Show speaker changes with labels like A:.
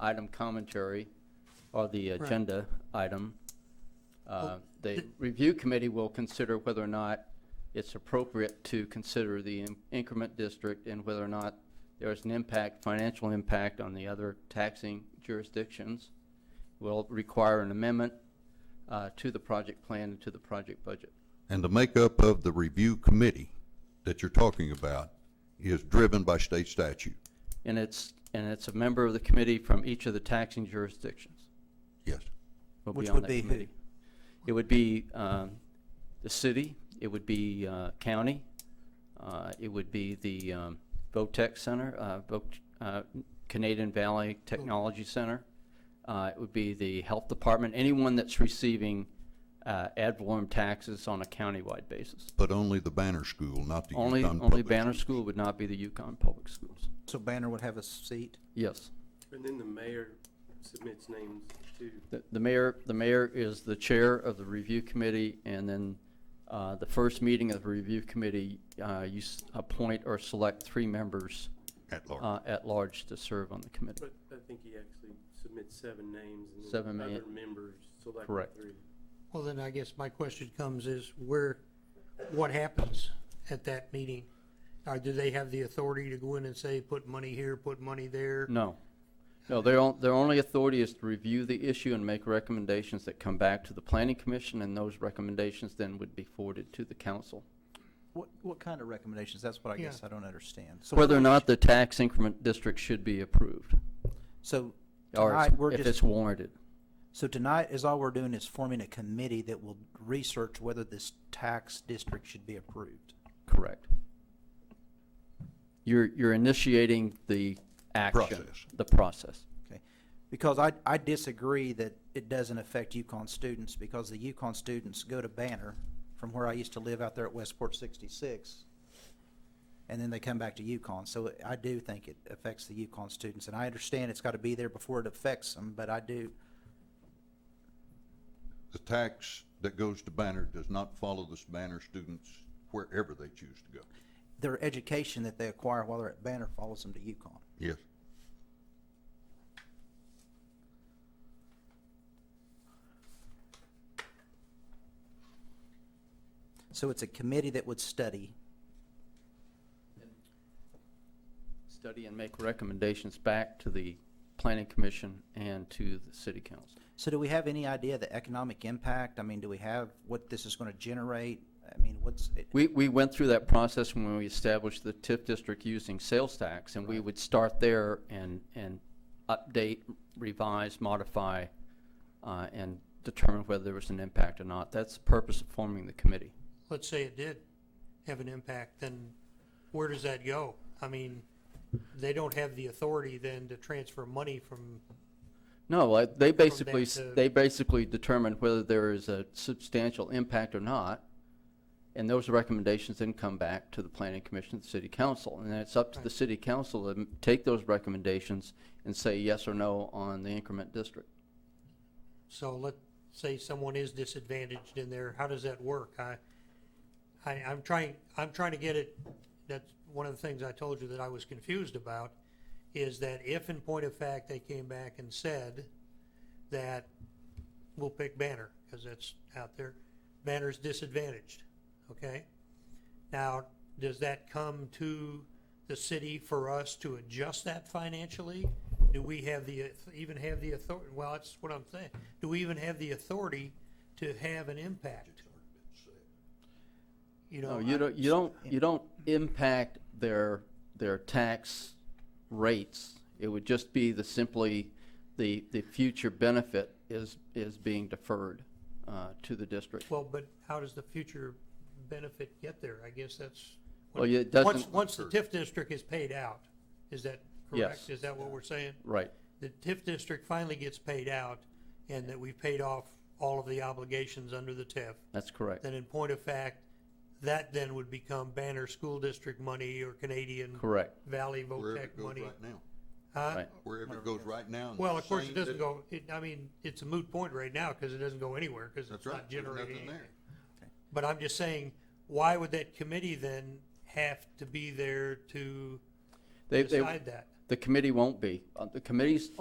A: item commentary or the
B: Right.
A: agenda item. Uh,
B: Well,
A: The
B: th-
A: review committee will consider whether or not it's appropriate to consider the in- increment district and whether or not there is an impact, financial impact on the other taxing jurisdictions. Will require an amendment uh, to the project plan and to the project budget.
C: And the makeup of the review committee that you're talking about is driven by state statute.
A: And it's, and it's a member of the committee from each of the taxing jurisdictions.
C: Yes.
A: will
B: Which
A: on
B: would
A: that
B: be who?
A: committee. It would be um, the city, it would be uh, county, uh, it would be the um, VOTEC Center, uh, Vo- uh, Canadian Valley Technology Center, uh, it would be the health department, anyone that's receiving uh, ad valorem taxes on a countywide basis.
C: But only the Banner School, not the
A: Only,
C: Yukon
A: only
C: Public
A: Banner
C: Schools.
A: School would not be the Yukon Public Schools.
B: So Banner would have a seat?
A: Yes.
D: And then the mayor submits names to,
A: The- The mayor, the mayor is the chair of the review committee, and then uh, the first meeting of the review committee, uh, you s- appoint or select three members
C: At large.
A: uh, at large to serve on the committee.
D: but I think he actually submits seven names and
A: Seven
D: then
A: ma-
D: other members select
A: Correct.
D: three.
E: Well, then I guess my question comes is where, what happens at that meeting? Or do they have the authority to go in and say, put money here, put money there?
A: No. No, their, on- their only authority is to review the issue and make recommendations that come back to the planning commission, and those recommendations then would be forwarded to the council.
B: What, what kind of recommendations? That's what I guess
E: Yeah.
B: I don't understand. So
A: Whether or not the tax increment district should be approved,
B: So
A: or
B: tonight, we're
A: if
B: just,
A: it's warranted.
B: so tonight is all we're doing is forming a committee that will research whether this tax district should be approved.
A: Correct. You're, you're initiating the action.
C: Process.
A: The process.
B: Okay. Because I, I disagree that it doesn't affect Yukon students because the Yukon students go to Banner from where I used to live out there at Westport sixty-six. And then they come back to Yukon. So I do think it affects the Yukon students and I understand it's got to be there before it affects them, but I do.
C: The tax that goes to Banner does not follow the Banner students wherever they choose to go.
B: Their education that they acquire while they're at Banner follows them to Yukon.
C: Yes.
B: So it's a committee that would study.
A: Study and make recommendations back to the planning commission and to the city council.
B: So do we have any idea of the economic impact? I mean, do we have what this is going to generate? I mean, what's, it-
A: We, we went through that process when we established the TIF district using sales tax, and we would start there and, and update, revise, modify, uh, and determine whether there was an impact or not. That's the purpose of forming the committee.
E: Let's say it did have an impact, then where does that go? I mean, they don't have the authority then to transfer money from,
A: No, I- they basically, s-
E: to-
A: they basically determine whether there is a substantial impact or not, and those recommendations then come back to the planning commission, the city council, and then it's up to the
E: Right.
A: city council to m- take those recommendations and say yes or no on the increment district.
E: so let's say someone is disadvantaged in there, how does that work? I, I, I'm trying, I'm trying to get it, that's one of the things I told you that I was confused about, is that if in point of fact they came back and said that we'll pick Banner, because that's out there, Banner's disadvantaged, okay? Now, does that come to the city for us to adjust that financially? Do we have the, even have the authority, well, that's what I'm saying, do we even have the authority to have an impact? You
A: No,
E: know,
A: you
E: I-
A: don't, you don't, you don't impact their, their tax rates. It would just be the simply, the, the future benefit is, is being deferred uh, to the district.
E: Well, but how does the future benefit get there? I guess that's.
A: Well, yeah, it
E: Once,
A: doesn't-
E: once the TIF district is paid out, is that
A: Yes.
E: correct? Is that what we're saying?
A: Right.
E: The TIF district finally gets paid out and that we've paid off all of the obligations under the TIF.
A: That's correct.
E: Then in point of fact, that then would become Banner School District money or Canadian
A: Correct.
E: Valley
C: Wherever
E: VOTEC
C: it goes
E: money.
C: right now.
E: Huh?
A: Right.
C: Wherever it goes right now. and
E: Well,
C: the
E: of course, it
C: same
E: doesn't
C: that-
E: go, it, I mean, it's a moot point right now because it doesn't go anywhere because
C: That's
E: it's
C: right.
E: not
C: There's
E: generating
C: nothing
E: anything.
C: there.
E: But I'm just saying, why would that committee then have to be there to
A: They, they,
E: decide that?
A: the committee won't be. Uh, The committee's